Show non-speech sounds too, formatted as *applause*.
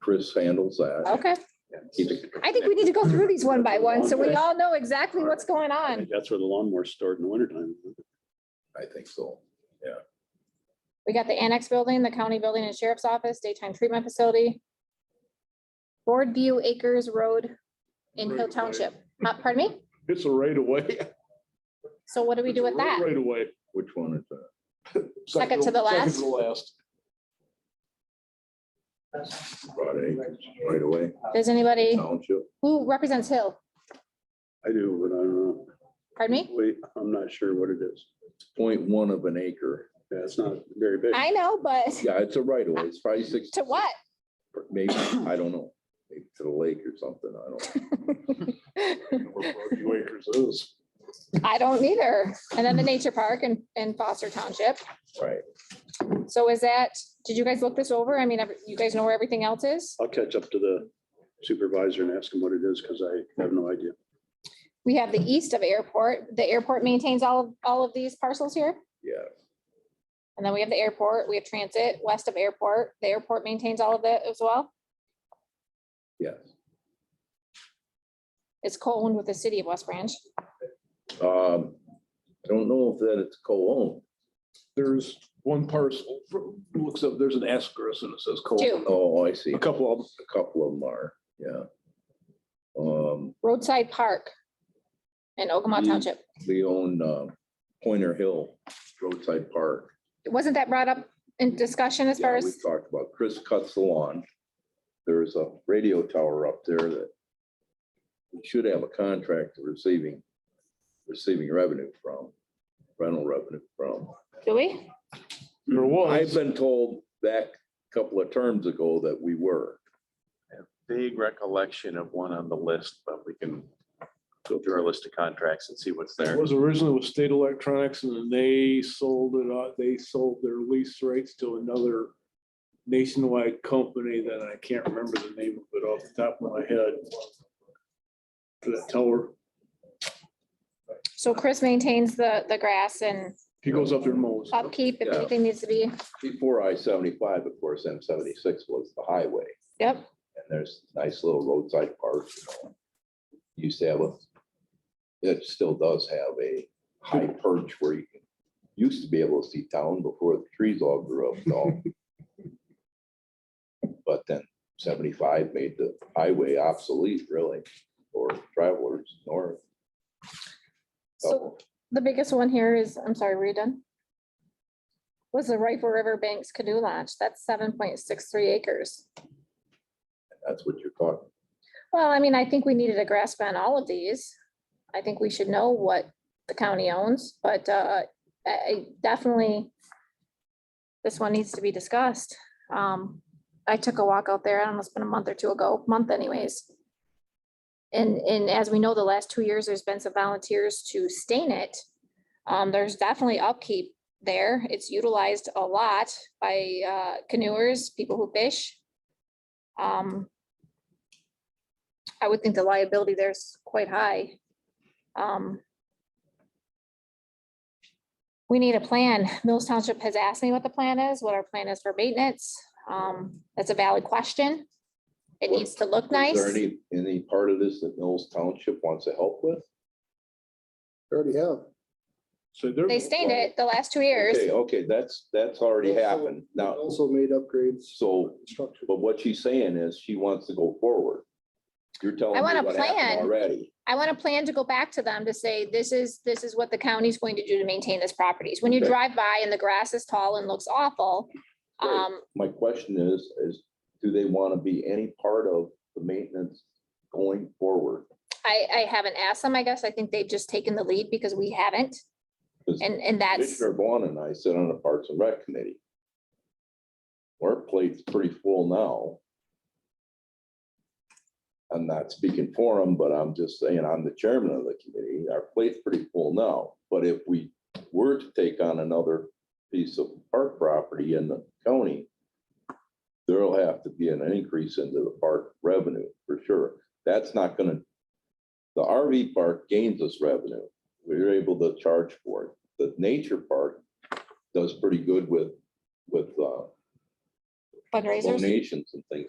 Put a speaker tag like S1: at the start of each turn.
S1: Chris handles that.
S2: Okay,
S1: He's a-
S2: Oh. I think we need to go through these one by one, so we all know exactly what's going
S3: I
S2: on.
S3: think That's where the lawnmower's stored in the wintertime.
S1: I think so.
S2: We got the annex building, the county building and sheriff's office, daytime treatment facility. Board View Acres Road in Hill Township. Uh, Pardon me?
S4: It's a right of way.
S2: So what do we do with that?
S4: Right of way.
S1: Which one is that?
S2: Second to the
S4: second
S2: last.
S4: to last.
S1: Broad acres, right away,
S2: Does anybody,
S1: township.
S2: who represents Hill?
S3: I do, but I don't know.
S2: Pardon me?
S3: Wait, I'm not sure what it is.
S1: Point one of an acre.
S3: Yeah, it's not very big.
S2: I know, but *laughs*
S1: Yeah, it's a right away. It's probably six,
S2: to what?
S1: maybe, I don't know, maybe to the lake or something. I don't.
S4: Where Broadview Acres is.
S2: I don't either. And then the nature park and, and Foster Township. *laughs*
S1: Right.
S2: So is that, did you guys look this over? I mean, every- you guys know where everything else is?
S3: I'll catch up to the supervisor and ask him what it is because I have no idea.
S2: We have the east of airport. The airport maintains all, of all of these parcels here.
S1: Yeah,
S2: And then we have the airport, we have transit west of airport. The airport maintains all of that as well.
S1: yes.
S2: It's co-owned with the city of West Branch.
S1: Um, I don't know if that it's co-owned.
S4: There's one parcel, from- looks up, there's an asterisk and it says
S2: Two.
S4: co
S1: Oh, I see.
S4: A couple of them.
S1: A couple of them are, yeah. Um,
S2: Roadside Park in Ogama
S1: Mm.
S2: Township.
S1: we own, uh, Pointer Hill Roadside Park.
S2: Wasn't that brought up in discussion as far
S1: Yeah,
S2: as?
S1: we talked about, Chris cuts the lawn. There's a radio tower up there that we should have a contract receiving, receiving revenue from, rental revenue from.
S2: Do we?
S3: Mm-hmm.
S4: There
S1: I've
S4: was.
S1: been told back a couple of terms ago that we were.
S5: vague recollection of one on the list, but we can go through our list of contracts and see what's
S4: It
S5: there.
S4: was originally with State Electronics and then they sold it, out- they sold their lease rights to another nationwide company that I can't remember the name of it off the top of my head. For that tower.
S2: So Chris maintains the, the grass and
S4: He goes up there and mows.
S2: upkeep if
S1: Yeah.
S2: anything needs to be,
S1: Before I seventy-five, of course, M seventy-six was the highway.
S2: yep.
S1: And there's nice little roadside parks, you know. Used to have a, it still does have a high perch where you can, used to be able to see town before the trees all grew up and
S2: *laughs*
S1: all. But then seventy-five made the highway obsolete really for travelers north. Oh.
S2: So the biggest one here is, I'm sorry, were you done? Was the Rifle River Banks Canoe Launch. That's seven point six three acres.
S1: That's what you're talking.
S2: Well, I mean, I think we needed a grasp on all of these. I think we should know what the county owns, but uh, I- I definitely this one needs to be discussed. Um, I took a walk out there, I don't know, it's been a month or two ago, month anyways. And, and as we know, the last two years, there's been some volunteers to stain it. Um, there's definitely upkeep there. It's utilized a lot by uh, canoers, people who fish. Um, I would think the liability there's quite high. Um. We need a plan. Mills Township has asked me what the plan is, what our plan is for maintenance. Um, that's a valid question. It
S1: What-
S2: needs to look
S1: Is
S2: nice.
S1: there any, any part of this that Mills Township wants to help with?
S4: Already have. So they're.
S2: They stained it the last two years.
S1: Okay, okay, that's, that's already happened. Now,
S6: Also made upgrades,
S1: so
S6: structure.
S1: But what she's saying is she wants to go forward. You're telling
S2: I
S1: me
S2: want a
S1: what happened
S2: plan.
S1: already.
S2: I want a plan to go back to them to say, this is, this is what the county's going to do to maintain this properties. When you
S1: Okay.
S2: drive by and the grass is tall and looks awful,
S1: Right.
S2: um,
S1: My question is, is do they want to be any part of the maintenance going forward?
S2: I, I haven't asked them, I guess. I think they've just taken the lead because we haven't.
S1: 'Cause
S2: And, and that's,
S1: Commissioner Vaughn and I sit on the Parks and Rec Committee. Our plate's pretty full now. I'm not speaking for them, but I'm just saying I'm the chairman of the committee. Our plate's pretty full now. But if we were to take on another piece of park property in the county, there'll have to be an increase into the park revenue for sure. That's not gonna, the RV park gains us revenue. We're able to charge for it the nature park does pretty good with, with uh,
S2: fundraisers.
S1: donations and things like